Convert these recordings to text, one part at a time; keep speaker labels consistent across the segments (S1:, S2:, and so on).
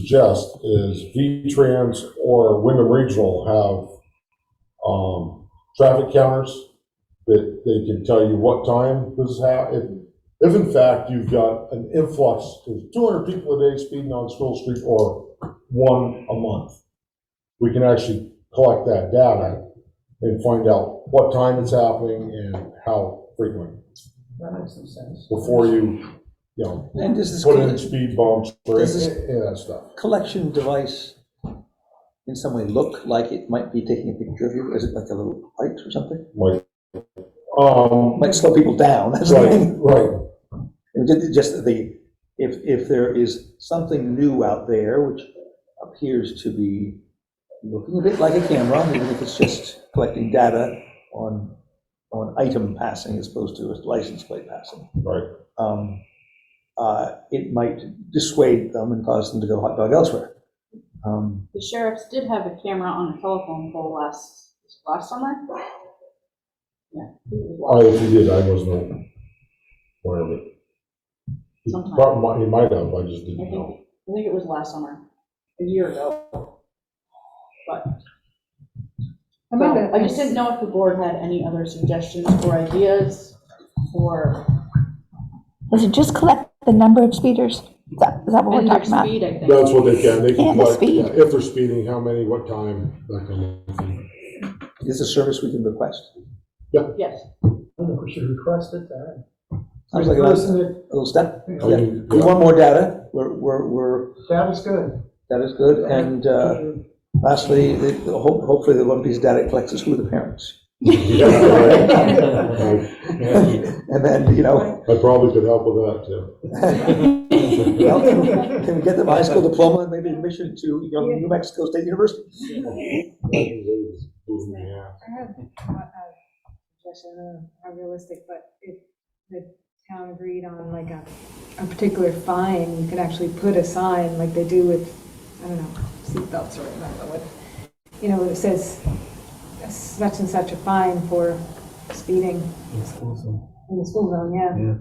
S1: suggest is V-Trans or Wyndham Regional have, um, traffic counters that they can tell you what time this is how, if, if in fact you've got an influx, of two hundred people a day speeding on School Street or one a month, we can actually collect that data and find out what time it's happening and how frequent
S2: That makes some sense.
S1: before you, you know,
S2: And does this
S1: put in
S2: colle-
S1: speed bumps or
S2: This is-
S1: any of that stuff.
S2: collection device in some way look like it might be taking a picture of you? Is it like a little light or something?
S1: Like, um,
S2: Might slow people down, that's what I
S1: right,
S2: mean.
S1: right,
S2: And ju- Just the, if, if there is something new out there, which appears to be looking a bit like a camera, even if it's just collecting data on, on item passing as opposed to a license plate passing.
S1: right.
S2: um, uh, it might dissuade them and cause them to go hot dog elsewhere. Um,
S3: The sheriffs did have a camera on a telephone pole last, last summer. Yeah. he was
S1: I,
S3: watching.
S1: if he did, I wasn't aware of it. He
S3: Sometime.
S1: prob- He might have, I just
S3: I
S1: didn't know.
S3: think, I think it was last summer, a year ago. But,
S4: How
S3: but
S4: about
S3: no,
S4: that?
S3: I just didn't know if the board had any other suggestions or ideas or
S5: Does it just collect the number of speeders? Is that, is that what we're
S3: and their
S5: talking about?
S3: speed, I think.
S1: That's what they can, they can,
S5: And the
S1: collect,
S5: speed.
S1: yeah, if they're speeding, how many, what time, that kind of thing.
S2: It's a service we can request.
S3: Yes,
S6: I don't know, we should request it, that.
S2: Sounds like uh, a
S6: Request
S2: little,
S6: it,
S2: little step.
S1: I
S2: Yeah.
S1: mean,
S2: We want more data. We're, we're, we're,
S6: that is good.
S2: that is good. And uh, lastly, the- the ho- hopefully the one piece of data it collects is who are the parents.
S1: yeah.
S2: And then, you know,
S1: I probably could help with that too.
S2: well, can we- can we get them a high school diploma and maybe admission to you know, New Mexico State University?
S1: Yeah.
S4: I have a a suggestion, I don't know how realistic, but if the town agreed on like a, a particular fine, you could actually put a sign like they do with, I don't know, seatbelts or whatever, what, you know, it says such and such a fine for speeding in the school zone, yeah,
S6: Yeah.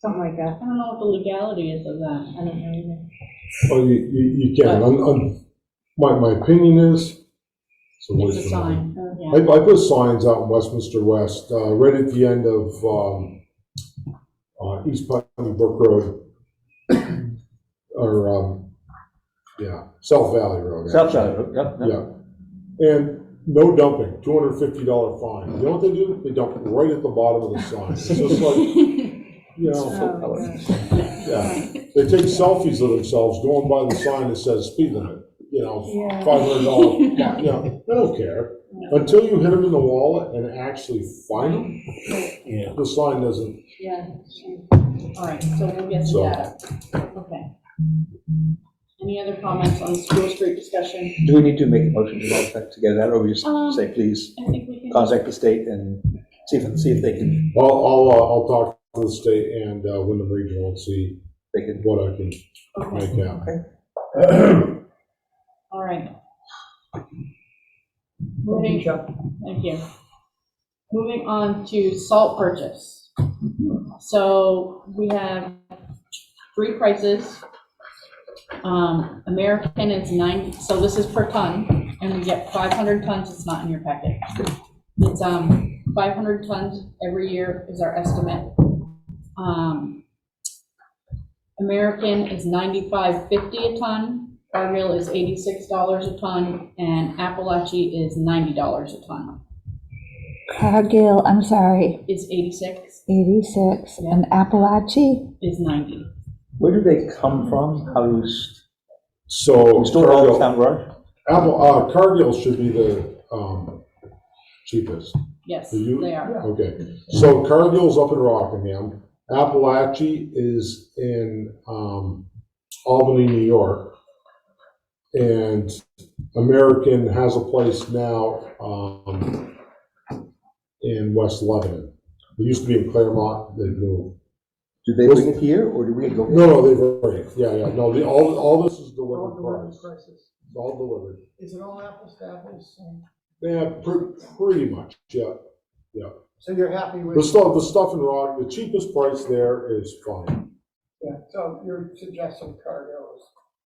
S4: something like
S3: I
S4: that.
S3: don't know what the legality is of that.
S4: I don't know either.
S1: Well, you, you, you can, I'm, I'm, my, my opinion is. so what
S3: It's a
S1: is-
S3: sign, Oh,
S1: I,
S3: yeah.
S1: I put signs out in Westminster West, uh, right at the end of, um, uh, East Putney Brook Road. Or, um, yeah, South Valley Road.
S2: South Side, yep, yep.
S1: Yeah. And no dumping, two hundred and fifty dollar fine. You know what they do? They dump right at the bottom of the sign. It's just like, you know,
S4: Oh,
S2: colors.
S4: yeah.
S1: yeah. They take selfies of themselves going by the sign that says speed limit, you know,
S4: Yeah.
S1: five hundred dollar, you know, they don't care. Until you hit them in the wallet and actually find them,
S6: Yeah.
S1: the sign doesn't,
S3: Yeah. All right, so we'll get
S1: So-
S3: to that. Okay. Any other comments on the school street discussion?
S2: Do we need to make a motion to that effect to get that, or we just
S3: Um,
S2: say, please
S3: I think we can.
S2: contact the state and see if, see if they can,
S1: I'll, I'll, uh, I'll talk to the state and, uh, Wyndham Regional and see
S2: they can,
S1: what I can
S3: Okay.
S1: make out.
S3: All right. Moving, thank you. Moving on to salt purchase. So we have three prices. Um, American is nine, so this is per ton, and we get 500 tons, it's not in your packet. It's, um, 500 tons every year is our estimate. Um, American is ninety-five fifty a ton, Argyle is eighty-six dollars a ton, and Appalachia is ninety dollars a ton.
S5: Cargill, I'm sorry,
S3: Is eighty-six,
S5: 86, and Appalachia?
S3: is ninety.
S2: where do they come from? How do you, s-
S1: So.
S2: we store all
S1: Cargill-
S2: the town garage?
S1: Apple, uh, Cargill should be the, um, cheapest.
S3: Yes,
S1: Are you-
S3: they are.
S1: Okay, so Cargill's up in Rockingham, Appalachia is in, um, Albany, New York. And American has a place now, um, in West Lebanon. It used to be in Claremont, they moved.
S2: Do they bring it here, or do we go?
S1: No, no, they've already, yeah, yeah, no, the, all, all this is delivered price, It's all delivered.
S6: Is it all apples to apples?
S1: Yeah, pre- pretty much, yeah.
S6: So you're happy
S1: The
S6: with,
S1: stuff, the stuff in Rock, the cheapest price there is fine.
S6: yeah, so you're suggesting cargo